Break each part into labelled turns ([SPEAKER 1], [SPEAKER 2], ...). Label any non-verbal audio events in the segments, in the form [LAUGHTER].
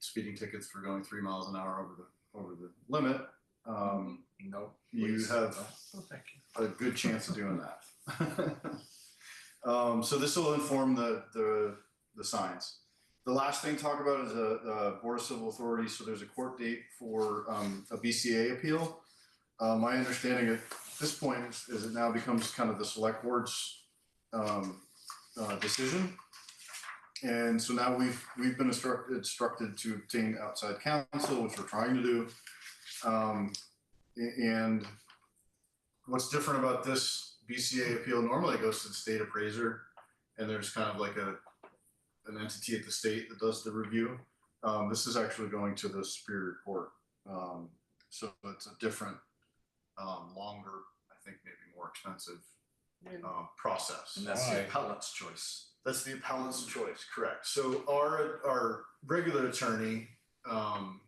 [SPEAKER 1] speeding tickets for going three miles an hour over the, over the limit, um,
[SPEAKER 2] No.
[SPEAKER 1] you
[SPEAKER 2] please.
[SPEAKER 1] have
[SPEAKER 3] Oh,
[SPEAKER 2] No, thank you.
[SPEAKER 1] a good chance of doing that. [LAUGHS] Um, so this will inform the, the, the signs. The last thing to talk about is a, a Board of Civil Authority, so there's a court date for, um, a BCA appeal. Uh, my understanding at this point is, is it now becomes kind of the select board's, um, uh, decision. And so now we've, we've been instructed, instructed to obtain outside counsel, which we're trying to do. Um, a- and what's different about this BCA appeal, normally it goes to the state appraiser, and there's kind of like a, an entity at the state that does the review. Um, this is actually going to the Superior Court. Um, so it's a different, um, longer, I think maybe more expensive, um, process.
[SPEAKER 2] And that's the
[SPEAKER 4] Why?
[SPEAKER 2] appellant's choice.
[SPEAKER 1] That's the appellant's choice, correct. So our, our regular attorney, um,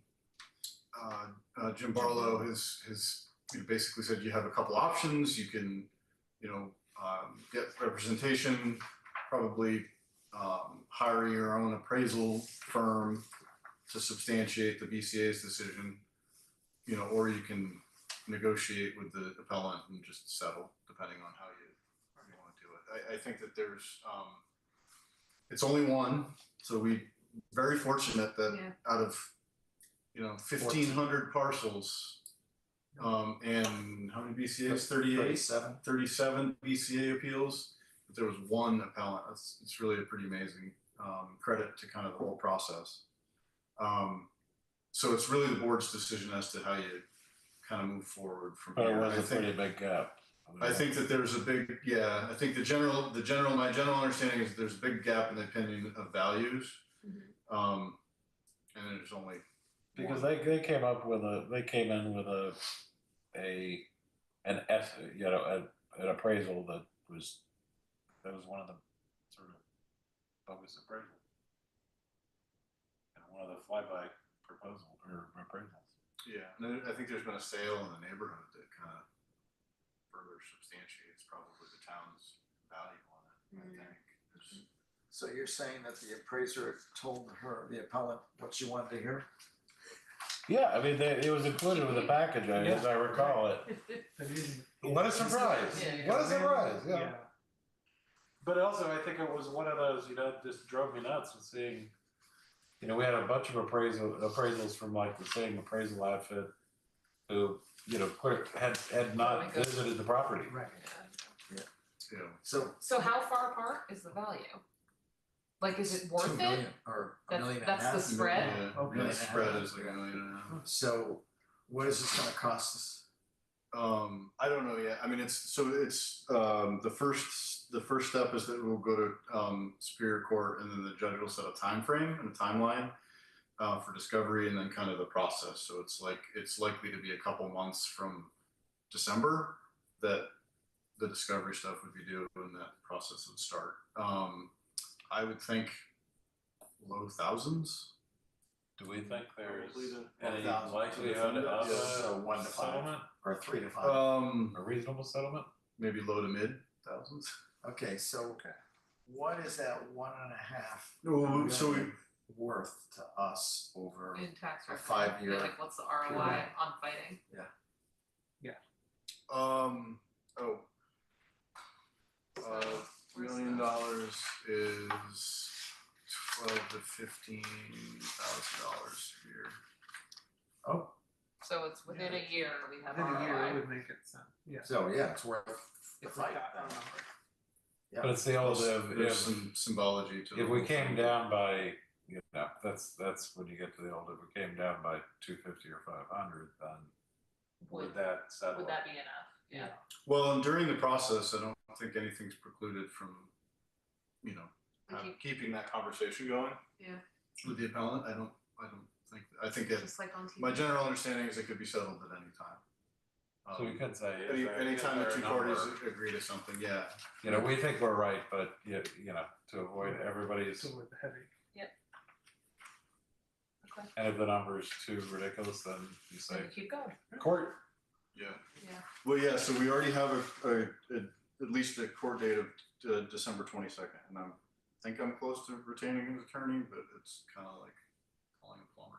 [SPEAKER 1] uh, uh, Jim Barlow has, has you know, basically said you have a couple options. You can, you know, um, get representation, probably, um, hire your own appraisal firm to substantiate the BCA's decision. You know, or you can negotiate with the appellant and just settle, depending on how you, how you wanna do it. I, I think that there's, um, it's only one, so we, very fortunate that
[SPEAKER 5] Yeah.
[SPEAKER 1] out of, you know, fifteen hundred parcels, um, and how many BCA's, thirty-eight?
[SPEAKER 2] Thirty-seven.
[SPEAKER 1] 37 BCA appeals, but there was one appellant. That's, it's really a pretty amazing um, credit to kind of the whole process. Um, so it's really the board's decision as to how you kind of move forward from
[SPEAKER 4] But it
[SPEAKER 1] here.
[SPEAKER 4] was
[SPEAKER 1] I
[SPEAKER 4] a pretty
[SPEAKER 1] think,
[SPEAKER 4] big gap.
[SPEAKER 1] I think that there's a big, yeah, I think the general, the general, my general understanding is there's a big gap in the opinion of values.
[SPEAKER 5] Mhm.
[SPEAKER 1] Um, and there's only,
[SPEAKER 4] Because they, they came up with a, they came in with a, a, an S, you know, a- an appraisal that was, that was one of the sort of bogus appraisal. And one of the flyby proposal or appraisals.
[SPEAKER 1] yeah, and I think there's been a sale in the neighborhood that kind of further substantiates probably the town's value on it. I
[SPEAKER 5] Mm.
[SPEAKER 1] think. It's-
[SPEAKER 2] So you're saying that the appraiser told her, the appellant, what she wanted to
[SPEAKER 3] [LAUGHS]
[SPEAKER 2] hear?
[SPEAKER 4] Yeah, I mean, they, it was included with the package, I- as I recall it. What a surprise.
[SPEAKER 5] Yeah.
[SPEAKER 4] What a surprise, yeah.
[SPEAKER 6] But also, I think it was one of those, you know, just drove me nuts with seeing.
[SPEAKER 4] you know, we had a bunch of appraisal appraisals from like the same appraisal outfit who, you know, clear, had had
[SPEAKER 5] Oh my
[SPEAKER 4] not
[SPEAKER 5] God.
[SPEAKER 4] visited the property.
[SPEAKER 2] Right.
[SPEAKER 1] Yeah.
[SPEAKER 2] So
[SPEAKER 5] So how far apart is the value? Like, is it
[SPEAKER 2] two
[SPEAKER 5] worth it?
[SPEAKER 2] million or a
[SPEAKER 5] That's-
[SPEAKER 2] million and a half.
[SPEAKER 5] that's the spread?
[SPEAKER 2] million.
[SPEAKER 1] Yeah,
[SPEAKER 2] Okay.
[SPEAKER 1] yeah, the spread is like a million and a half.
[SPEAKER 2] So what is this gonna cost us?
[SPEAKER 1] Um, I don't know yet. I mean, it's so it's um, the first the first step is that we'll go to um, Superior Court, and then the judge will set a time frame and a timeline uh, for discovery, and then kind of the process. So it's like it's likely to be a couple months from December that the discovery stuff would be due, and that process would start. Um, I would think low thousands.
[SPEAKER 4] Do we think there's
[SPEAKER 6] Probably the-
[SPEAKER 4] any
[SPEAKER 2] 1,000.
[SPEAKER 4] likelihood of
[SPEAKER 2] So
[SPEAKER 4] a
[SPEAKER 2] one to five
[SPEAKER 6] settlement.
[SPEAKER 2] or three to five?
[SPEAKER 1] Um,
[SPEAKER 4] a reasonable settlement?
[SPEAKER 1] maybe low to mid thousands.
[SPEAKER 2] Okay, so what is that one and a half
[SPEAKER 1] No, so we
[SPEAKER 2] worth to us over?
[SPEAKER 5] In tax
[SPEAKER 2] A
[SPEAKER 5] revenue?
[SPEAKER 2] five-year
[SPEAKER 5] Like, what's the ROI
[SPEAKER 2] period.
[SPEAKER 5] on fighting?
[SPEAKER 1] Um, oh.
[SPEAKER 5] So,
[SPEAKER 1] Uh,
[SPEAKER 5] where's
[SPEAKER 1] million
[SPEAKER 5] the-
[SPEAKER 1] dollars is twelve to fifteen thousand dollars a year.
[SPEAKER 2] Oh,
[SPEAKER 5] So it's within a year, we have
[SPEAKER 3] Within a year, it
[SPEAKER 5] ROI.
[SPEAKER 3] would make it sound, yeah.
[SPEAKER 2] so yeah, it's worth the
[SPEAKER 3] If we
[SPEAKER 2] fight.
[SPEAKER 3] got
[SPEAKER 2] then.
[SPEAKER 3] that number.
[SPEAKER 4] But it's the old
[SPEAKER 1] There's-
[SPEAKER 4] if
[SPEAKER 1] There's
[SPEAKER 4] if,
[SPEAKER 1] some symbology to the
[SPEAKER 4] if we
[SPEAKER 1] whole
[SPEAKER 4] came
[SPEAKER 1] thing.
[SPEAKER 4] down by you know, that's that's when you get to the old if we came down by two fifty or five hundred, then would
[SPEAKER 5] Would,
[SPEAKER 4] that settle?
[SPEAKER 5] would that be enough? Yeah.
[SPEAKER 1] Well, and during the process, I don't think anything's precluded from, you know,
[SPEAKER 5] We
[SPEAKER 1] have-
[SPEAKER 5] keep-
[SPEAKER 1] keeping that conversation going.
[SPEAKER 5] Yeah.
[SPEAKER 1] With the appellant, I don't, I don't think, I think that,
[SPEAKER 5] Just like on TV.
[SPEAKER 1] my general understanding is it could be settled at any time.
[SPEAKER 4] So we
[SPEAKER 1] Um,
[SPEAKER 4] could say
[SPEAKER 1] Any,
[SPEAKER 4] is there- is
[SPEAKER 1] anytime
[SPEAKER 4] there
[SPEAKER 1] the
[SPEAKER 4] a
[SPEAKER 1] two parties
[SPEAKER 4] number?
[SPEAKER 1] agree to something, yeah,
[SPEAKER 4] You know, we think we're right, but you, you know, to avoid everybody's
[SPEAKER 3] So with the heavy.
[SPEAKER 5] Okay.
[SPEAKER 4] And if the number is too ridiculous, then you say
[SPEAKER 5] Then we keep going,
[SPEAKER 4] court.
[SPEAKER 1] yeah.
[SPEAKER 5] yeah.
[SPEAKER 1] Well, yeah, so we already have a, a, a- at least a court date of uh, December twenty-second, and I'm, think I'm close to retaining an attorney, but it's kind of like. falling apart.